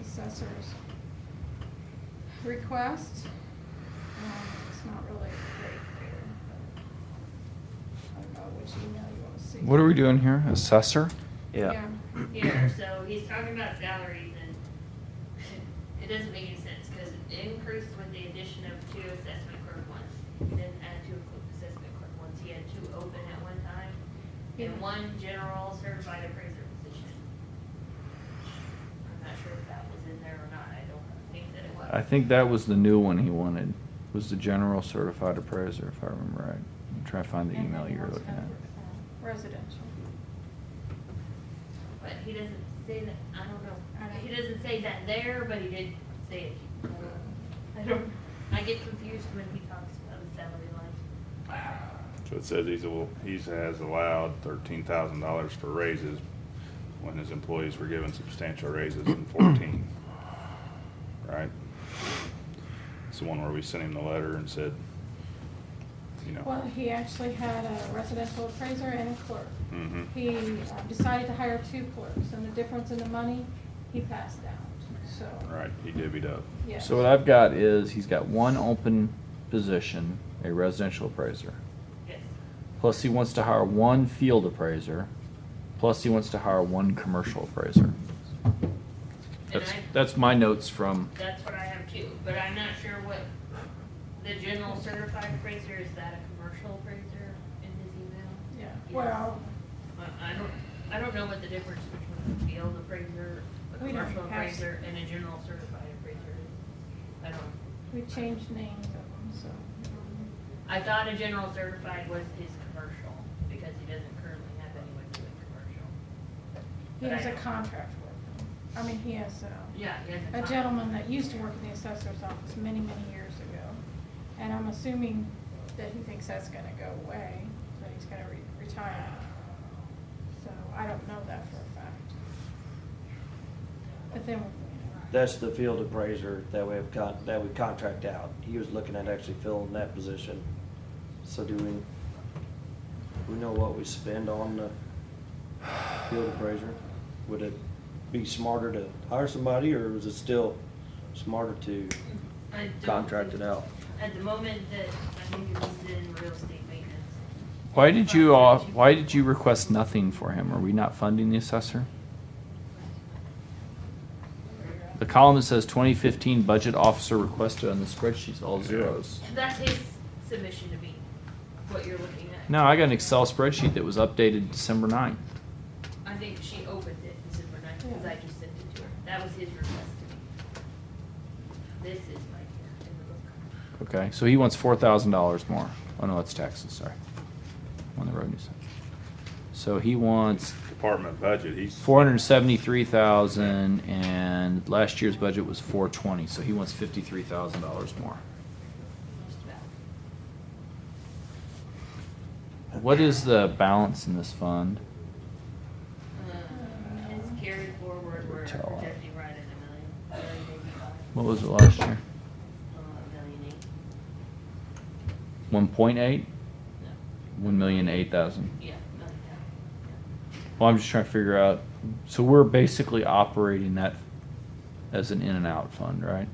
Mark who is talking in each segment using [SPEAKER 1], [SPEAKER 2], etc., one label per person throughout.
[SPEAKER 1] assessors. Request, um, it's not really great there, but I don't know which email you wanna see.
[SPEAKER 2] What are we doing here? Assessor?
[SPEAKER 1] Yeah.
[SPEAKER 3] here, so he's talking about salaries and it doesn't make any sense because it increased with the addition of two assessment clerk ones. He didn't add two assessment clerk ones, he had two open at one time
[SPEAKER 1] Yeah.
[SPEAKER 3] and one general certified appraiser position. I'm not sure if that was in there or not, I don't think that it was.
[SPEAKER 2] I think that was the new one he wanted, was the general certified appraiser, if I remember right. I'm trying to find the email you were looking at.
[SPEAKER 1] uh, Residential.
[SPEAKER 3] But he doesn't say that, I don't
[SPEAKER 1] I
[SPEAKER 3] know,
[SPEAKER 1] don't-
[SPEAKER 3] he doesn't say that there, but he did say it. I don't, I get confused when he talks about the salary line.
[SPEAKER 4] So it says he's, al- he's has allowed thirteen thousand dollars for raises when his employees were given substantial raises in fourteen. Right? It's the one where we sent him the letter and said, you
[SPEAKER 1] Well,
[SPEAKER 4] know,
[SPEAKER 1] he actually had a residential appraiser and a clerk.
[SPEAKER 4] Mhm.
[SPEAKER 1] He uh, decided to hire two clerks, and the difference in the money, he passed out, so.
[SPEAKER 4] right, he divvied up.
[SPEAKER 1] Yes.
[SPEAKER 2] So what I've got is, he's got one open position, a residential appraiser.
[SPEAKER 3] Yes.
[SPEAKER 2] Plus he wants to hire one field appraiser, plus he wants to hire one commercial appraiser.
[SPEAKER 3] And
[SPEAKER 2] That's,
[SPEAKER 3] I,
[SPEAKER 2] that's my notes from,
[SPEAKER 3] that's what I have too, but I'm not sure what, the general certified appraiser, is that a commercial appraiser in his email?
[SPEAKER 1] Yeah, well,
[SPEAKER 3] I, I don't, I don't know what the difference between a field appraiser, a
[SPEAKER 1] We don't
[SPEAKER 3] commercial
[SPEAKER 1] have to.
[SPEAKER 3] appraiser, and a general certified appraiser is. I don't.
[SPEAKER 1] we changed names of them, so. um,
[SPEAKER 3] I thought a general certified was his commercial, because he doesn't currently have anyone doing commercial.
[SPEAKER 1] He has a contract with them. I mean, he has a,
[SPEAKER 3] Yeah, he has a.
[SPEAKER 1] a
[SPEAKER 3] con-
[SPEAKER 1] gentleman that used to work in the assessor's office many, many years ago. And I'm assuming that he thinks that's gonna go away, that he's gonna re- retire. So I don't know that for a fact. But then, you know,
[SPEAKER 5] That's the field appraiser that we have con, that we contract out. He was looking at actually filling that position. So do we, we know what we spend on the field appraiser? Would it be smarter to hire somebody or is it still smarter to
[SPEAKER 3] I don't
[SPEAKER 5] contract it
[SPEAKER 3] think-
[SPEAKER 5] out?
[SPEAKER 3] At the moment that, I think it was in real estate maintenance.
[SPEAKER 2] why did you, all- why did you request nothing for him? Are we not funding the assessor? The column that says twenty fifteen budget officer requested on the spreadsheet's all zeros.
[SPEAKER 3] That's his submission to me, what you're looking at.
[SPEAKER 2] No, I got an Excel spreadsheet that was updated December 9th.
[SPEAKER 3] I think she opened it and said, we're not, because I just sent it to her. That was his request to me. This is right here in the book.
[SPEAKER 2] Okay, so he wants four thousand dollars more. Oh no, that's taxes. Sorry, on the revenue side. So he wants
[SPEAKER 4] Department budget, he's.
[SPEAKER 2] four hundred seventy-three thousand, and last year's budget was four twenty. So he wants fifty-three thousand dollars more.
[SPEAKER 3] Just about.
[SPEAKER 2] What is the balance in this fund?
[SPEAKER 3] Um, It's carried forward, we're
[SPEAKER 2] Tell.
[SPEAKER 3] projecting right at a million, million eighty-five,
[SPEAKER 2] What was it last year?
[SPEAKER 3] uh, million eight,
[SPEAKER 2] One point eight.
[SPEAKER 3] no,
[SPEAKER 2] One million eight thousand.
[SPEAKER 3] yeah, million eight.
[SPEAKER 2] Well, I'm just trying to figure out. So we're basically operating that as an in and out fund, right?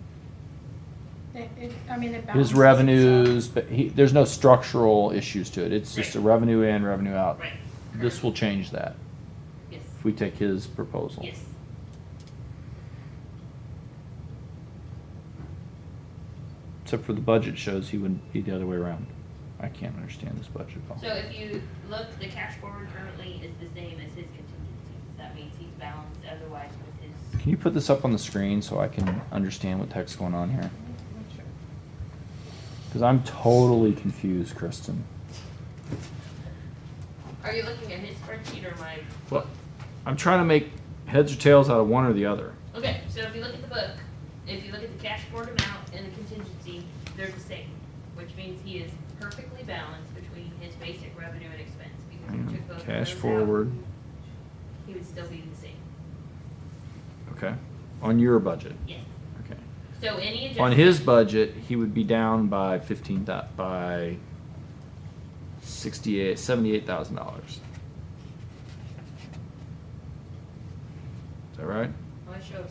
[SPEAKER 1] it, it, I mean, it balances.
[SPEAKER 2] His
[SPEAKER 1] itself.
[SPEAKER 2] revenues, but he, there's no structural issues to it. It's just a
[SPEAKER 3] Right.
[SPEAKER 2] revenue in, revenue
[SPEAKER 3] yeah.
[SPEAKER 2] out.
[SPEAKER 3] Right,
[SPEAKER 2] This will change that
[SPEAKER 3] yes,
[SPEAKER 2] if we take his proposal.
[SPEAKER 3] yes.
[SPEAKER 2] Except for the budget shows he would be the other way around. I can't understand this budget at all.
[SPEAKER 3] So if you look, the cash forward currently is the same as his contingencies, that means he's balanced otherwise with his,
[SPEAKER 2] Can you put this up on the screen so I can understand what the heck's going on here? Because I'm totally confused, Kristen.
[SPEAKER 3] are you looking at his spreadsheet or my?
[SPEAKER 2] Well, I'm trying to make heads or tails out of one or the other.
[SPEAKER 3] Okay, so if you look at the book, if you look at the cash forward amount and the contingency, they're the same, which means he is perfectly balanced between his basic revenue and expense, because if you took both of
[SPEAKER 2] Cash
[SPEAKER 3] those out,
[SPEAKER 2] forward.
[SPEAKER 3] He would still be the same,
[SPEAKER 2] Okay. On your budget.
[SPEAKER 3] yes.
[SPEAKER 2] Okay.
[SPEAKER 3] So any adjustment.
[SPEAKER 2] On his budget, he would be down by fifteen thou- by sixty-eight, seventy-eight thousand dollars. Is that right?
[SPEAKER 3] Well, Oh, it shows